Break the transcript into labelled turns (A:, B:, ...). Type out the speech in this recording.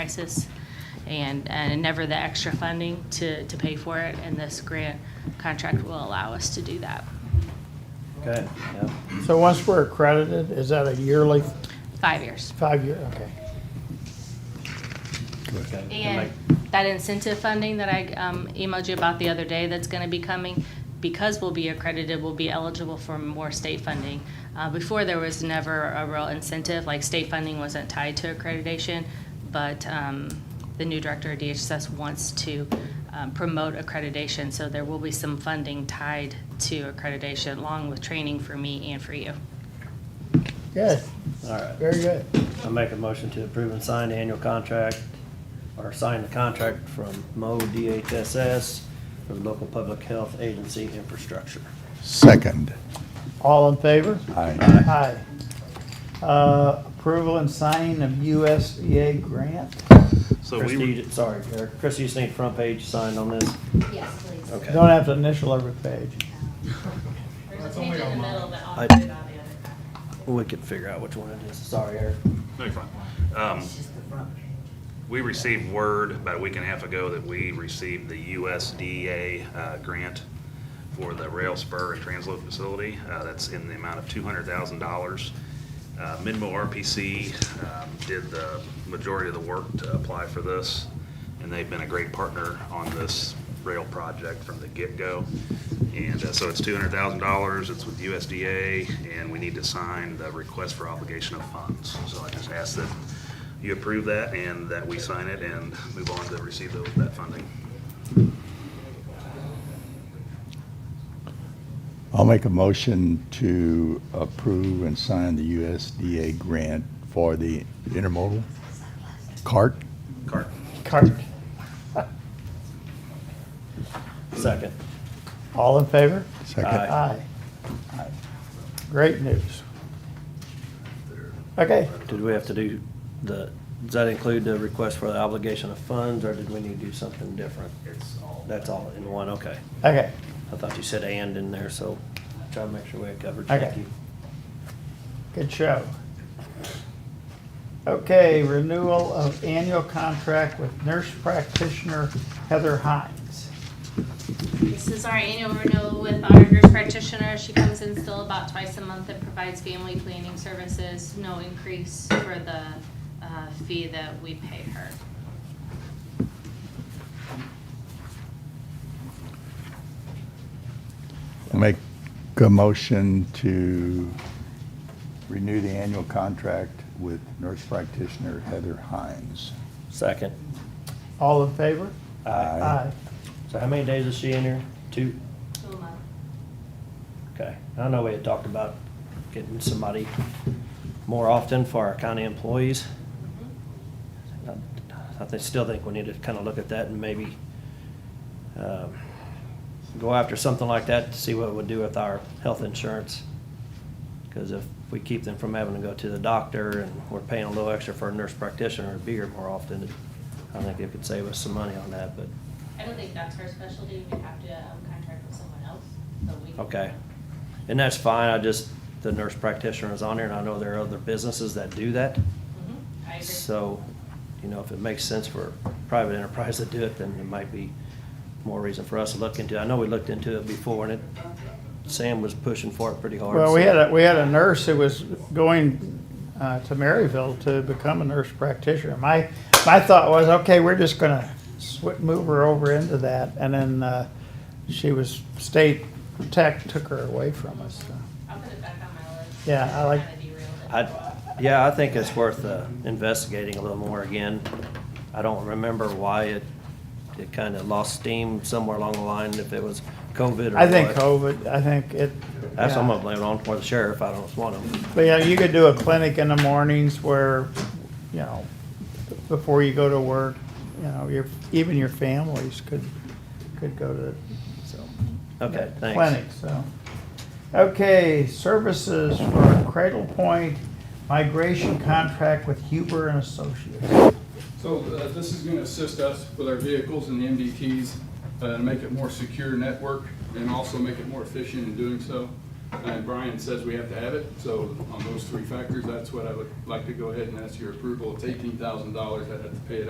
A: crisis, and, and never the extra funding to, to pay for it, and this grant contract will allow us to do that.
B: Good, yep.
C: So once we're accredited, is that a yearly,
A: Five years.
C: five-year, okay.
B: Okay.
A: And that incentive funding that I um, emailed you about the other day that's going to be coming, because we'll be accredited, we'll be eligible for more state funding. Uh, Before, there was never a real incentive, like state funding wasn't tied to accreditation, but um, the new director of DHSS wants to um, promote accreditation, so there will be some funding tied to accreditation, along with training for me and for you.
C: Good,
B: All right.
C: very good.
B: I make a motion to approve and sign the annual contract, or sign the contract from Mo DHSS for the local public health agency infrastructure.
D: Second.
C: All in favor?
D: Aye.
C: Aye. Uh, Approval and signing of USDA grant?
E: So we,
B: Christie,
E: were-
B: you ju- sorry, Eric, Christie, you just need front page signed on this?
F: Yes, please.
B: Okay.
C: Don't have to initial every page.
A: There's a page in the middle, but
B: I-
A: I'll
B: put it
A: on the other.
B: We could figure out which one it is. Sorry, Eric.
E: no, you're fine. Um, we received word about a week and a half ago that we received the USDA, uh, grant for the rail spur and transload facility. Uh, that's in the amount of two hundred thousand dollars. Uh, Minmo RPC, um, did the majority of the work to apply for this. And they've been a great partner on this rail project from the get-go. And uh, so it's two hundred thousand dollars, it's with USDA, and we need to sign the request for obligation of funds. So I just ask that you approve that and that we sign it and move on to receive tho- that funding.
D: I'll make a motion to approve and sign the USDA grant for the intermodal cart.
E: Cart.
C: Cart.
B: Second.
C: All in favor?
D: Second.
C: Aye. Aye. Great news. Okay,
B: Did we have to do the, does that include the request for the obligation of funds, or did we need to do something different?
E: It's all.
B: That's all in one, okay.
C: okay.
B: I thought you said and in there, so try to make sure we had covered.
C: Okay.
B: Thank you.
C: Good show. Okay, renewal of annual contract with nurse practitioner Heather Hines.
A: This is our annual renewal with our nurse practitioner. She comes in still about twice a month and provides family planning services. No increase for the uh, fee that we pay her.
D: I'll make a motion to renew the annual contract with nurse practitioner Heather Hines.
B: Second.
C: All in favor?
D: Aye.
B: So how many days is she in here? Two?
A: um,
B: Okay. I know we had talked about getting somebody more often for our county employees.
A: mhm.
B: Uh, I- I think- still think we need to kind of look at that and maybe um, go after something like that to see what it would do with our health insurance. Because if we keep them from having to go to the doctor and we're paying a little extra for a nurse practitioner to be here more often, I think it could save us some money on that, but,
A: I don't think that's her specialty. We have to um, contract with someone else, so we. can-
B: okay. And that's fine, I just, the nurse practitioner is on there and I know there are other businesses that do that.
A: Mhm, I agree.
B: So, you know, if it makes sense for private enterprise to do it, then it might be more reason for us to look into. it. I know we looked into it before and it, Sam was pushing for it pretty hard.
C: Well, we
B: so-
C: had a, we had a nurse who was going uh, to Maryville to become a nurse practitioner. My, my thought was, okay, we're just gonna swi- move her over into that, and then uh, she was, state tech took her away from us. so.
A: I'll put it back on my list.
C: Yeah, I like-
A: Kinda derailed it.
B: I, yeah, I think it's worth uh, investigating a little more again. I don't remember why it, it kind of lost steam somewhere along the line, if it was COVID or
C: I think
B: what.
C: COVID, I think it.
B: That's what I'm
C: yeah.
B: gonna blame it on, or the sheriff, I don't want him.
C: But yeah, you could do a clinic in the mornings where, you know, before you go to work, you know, your, even your families could, could go to, so.
B: Okay, thanks.
C: Clinic, so. Okay, services for Cradle Point migration contract with Huber and Associates.
G: So uh, this is going to assist us with our vehicles and the MDTs uh, to make it more secure network and also make it more efficient in doing so. And Brian says we have to have it, so on those three factors, that's what I would like to go ahead and ask your approval. It's eighteen thousand dollars. I'd have to pay it